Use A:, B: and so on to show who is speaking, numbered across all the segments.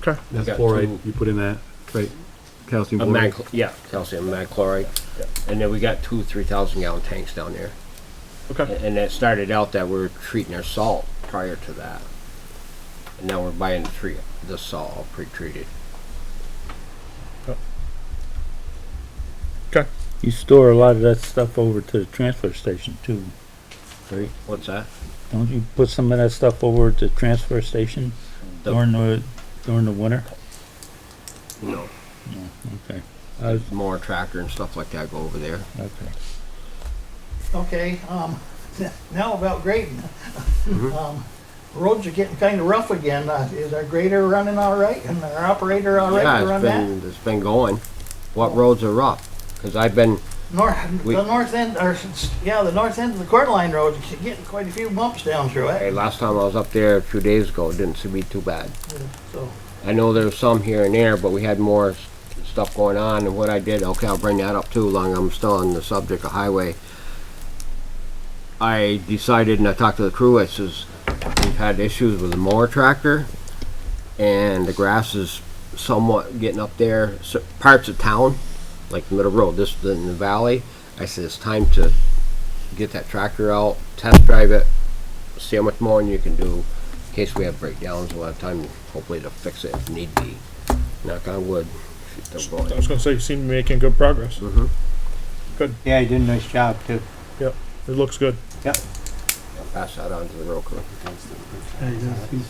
A: Okay.
B: That's
C: Got
B: fluoride,
C: two-
B: you put in that, right? Calcium
C: Of mag,
B: fluoride.
C: yeah, calcium mag chloride. And then we got two, three thousand gallon tanks down there.
A: Okay.
C: And that started out that we were treating our salt prior to that. And now we're buying three, the salt all pre-treated.
A: Okay.
D: You store a lot of that stuff over to the transfer station too, right?
C: What's that?
D: Don't you put some of that stuff over at the transfer station
C: The-
D: during the, during the winter?
C: No,
D: Okay. I was-
C: mower tractor and stuff like that go over there.
D: okay.
E: Okay, um, now about grading.
C: Mm-hmm.
E: Um, Roads are getting kind of rough again. Uh, Is our grader running all right and our operator all right
C: Yeah,
E: to
C: it's
E: run that?
C: been, it's been going. What roads are rough? Cause I've been,
E: North,
C: we-
E: the north end, or, s- yeah, the north end of the quarter line road, is getting quite a few bumps down through
C: hey,
E: it,
C: last time I was up there a few days ago, it didn't seem to be too bad.
E: so.
C: I know there's some here and there, but we had more s- stuff going on, and what I did, okay, I'll bring that up too, long I'm still on the subject of highway. I decided, and I talked to the crew, I says, we've had issues with the mower tractor, and the grass is somewhat getting up there, so, parts of town, like the middle road, this, the- in the valley, I said, it's time to get that tractor out, test drive it, see how much mowing you can do, in case we have breakdowns, we'll have time hopefully to fix it if need be. Knock on wood. if it don't
A: I
C: go in.
A: was gonna say, you seem to be making good progress.
F: Yeah, he did a nice job too.
A: It looks good.
C: I'll Pass that on to the road crew.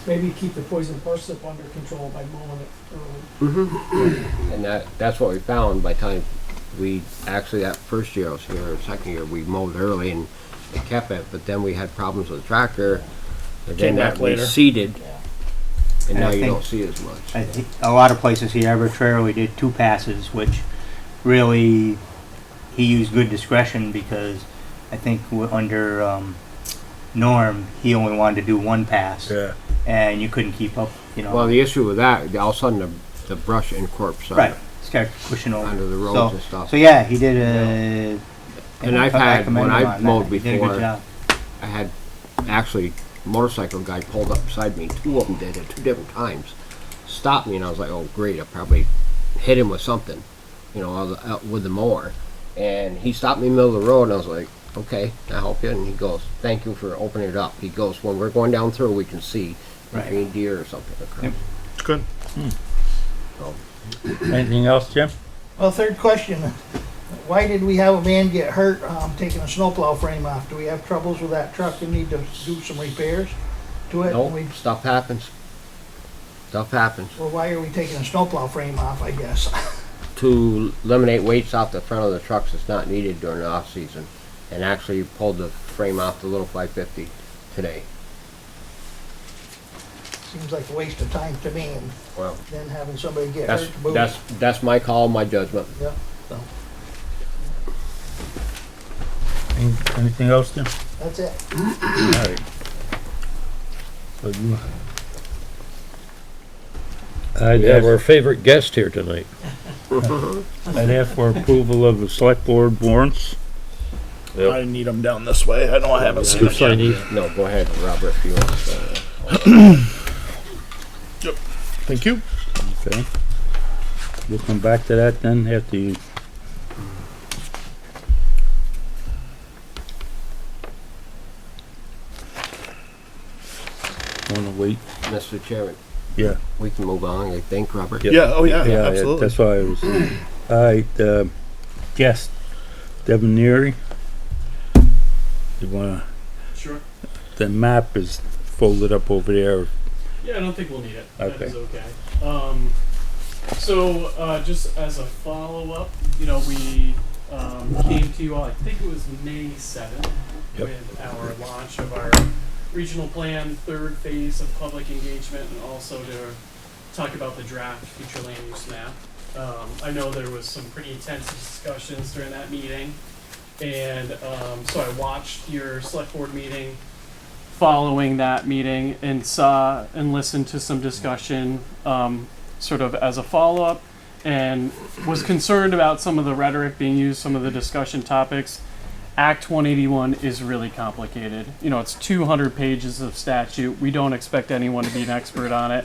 G: Maybe keep the poison parsnip under control by mowing it early.
C: Mm-hmm. And that, that's what we found by the time we, actually that first year I was here, or second year, we mowed early and it kept it, but then we had problems with the tractor. and
A: Came
C: then that
A: back later.
C: Seeded. And
F: And
C: now
F: I
C: you
F: think-
C: don't see as much.
F: I thi- A lot of places he arbitrarily did two passes, which really, he used good discretion because I think w- under um, Norm, he only wanted to do one pass. And you couldn't keep up, you know.
C: Well, the issue with that, all of a sudden the, the brush and corpse
F: Right,
C: on
F: start pushing over.
C: Under the roads
F: So-
C: and stuff.
F: So yeah, he did a.
C: And I've
F: I
C: had-
F: commend
C: when I've
F: him on that.
C: mowed
F: He did a
C: before,
F: good job.
C: I had actually motorcycle guy pulled up beside me. Two of them did at two different times. Stopped me and I was like, "Oh great, I probably hit him with something," you know, I was out with the mower. And he stopped me in the middle of the road and I was like, "Okay, I help you." And he goes, "Thank you for opening it up." He goes, "When we're going down through, we can see
F: Right.
C: between deer or something."
F: Yep.
A: It's good.
D: Anything else, Jim?
E: Well, third question, why did we have a man get hurt, um, taking a snowplow frame off? Do we have troubles with that truck and need to do some repairs to it? And we-
C: Nope, stuff happens. Stuff happens.
E: Well, why are we taking a snowplow frame off, I guess?
C: to eliminate weights off the front of the trucks that's not needed during the off-season. And actually you pulled the frame off the little 550 today.
E: Seems like a waste of time to me, and
C: Well,
E: then having somebody get
C: that's,
E: hurt to boot.
C: that's, that's my call, my judgment.
E: Yeah, so,
D: Any- Anything else, Jim?
E: that's it.
D: Alright. So you- I'd
H: We have
D: ask,
H: our favorite guest here tonight.
D: I'd ask for approval of the select board warrants.
A: I need them down this way. I know I haven't seen
H: You
A: them yet.
H: sign these?
C: No, go ahead, Robert, if you want. uh,
A: Thank you.
D: Okay. We'll come back to that then after you. Wanna wait?
C: Mr. Chairman.
D: Yeah.
C: We can move on, I think, Robert.
D: Yep.
A: Yeah. Oh yeah.
D: Yeah,
A: absolutely.
D: That's why I was, alright, uh, guest, Debonairi. You wanna,
I: Sure.
D: the map is folded up over there.
I: Yeah, I don't think we'll need it. That
D: Okay.
I: is okay. Um, so, uh, just as a follow up, you know, we um, came to you all, I think it was May 7th,
D: Yep.
I: with our launch of our regional plan, third phase of public engagement, and also to talk about the draft future land use map. Um, I know there was some pretty intense discussions during that meeting, and um, so I watched your select board meeting following that meeting and saw and listened to some discussion um, sort of as a follow up and was concerned about some of the rhetoric being used, some of the discussion topics. Act 181 is really complicated. You know, it's 200 pages of statute. We don't expect anyone to be an expert on it.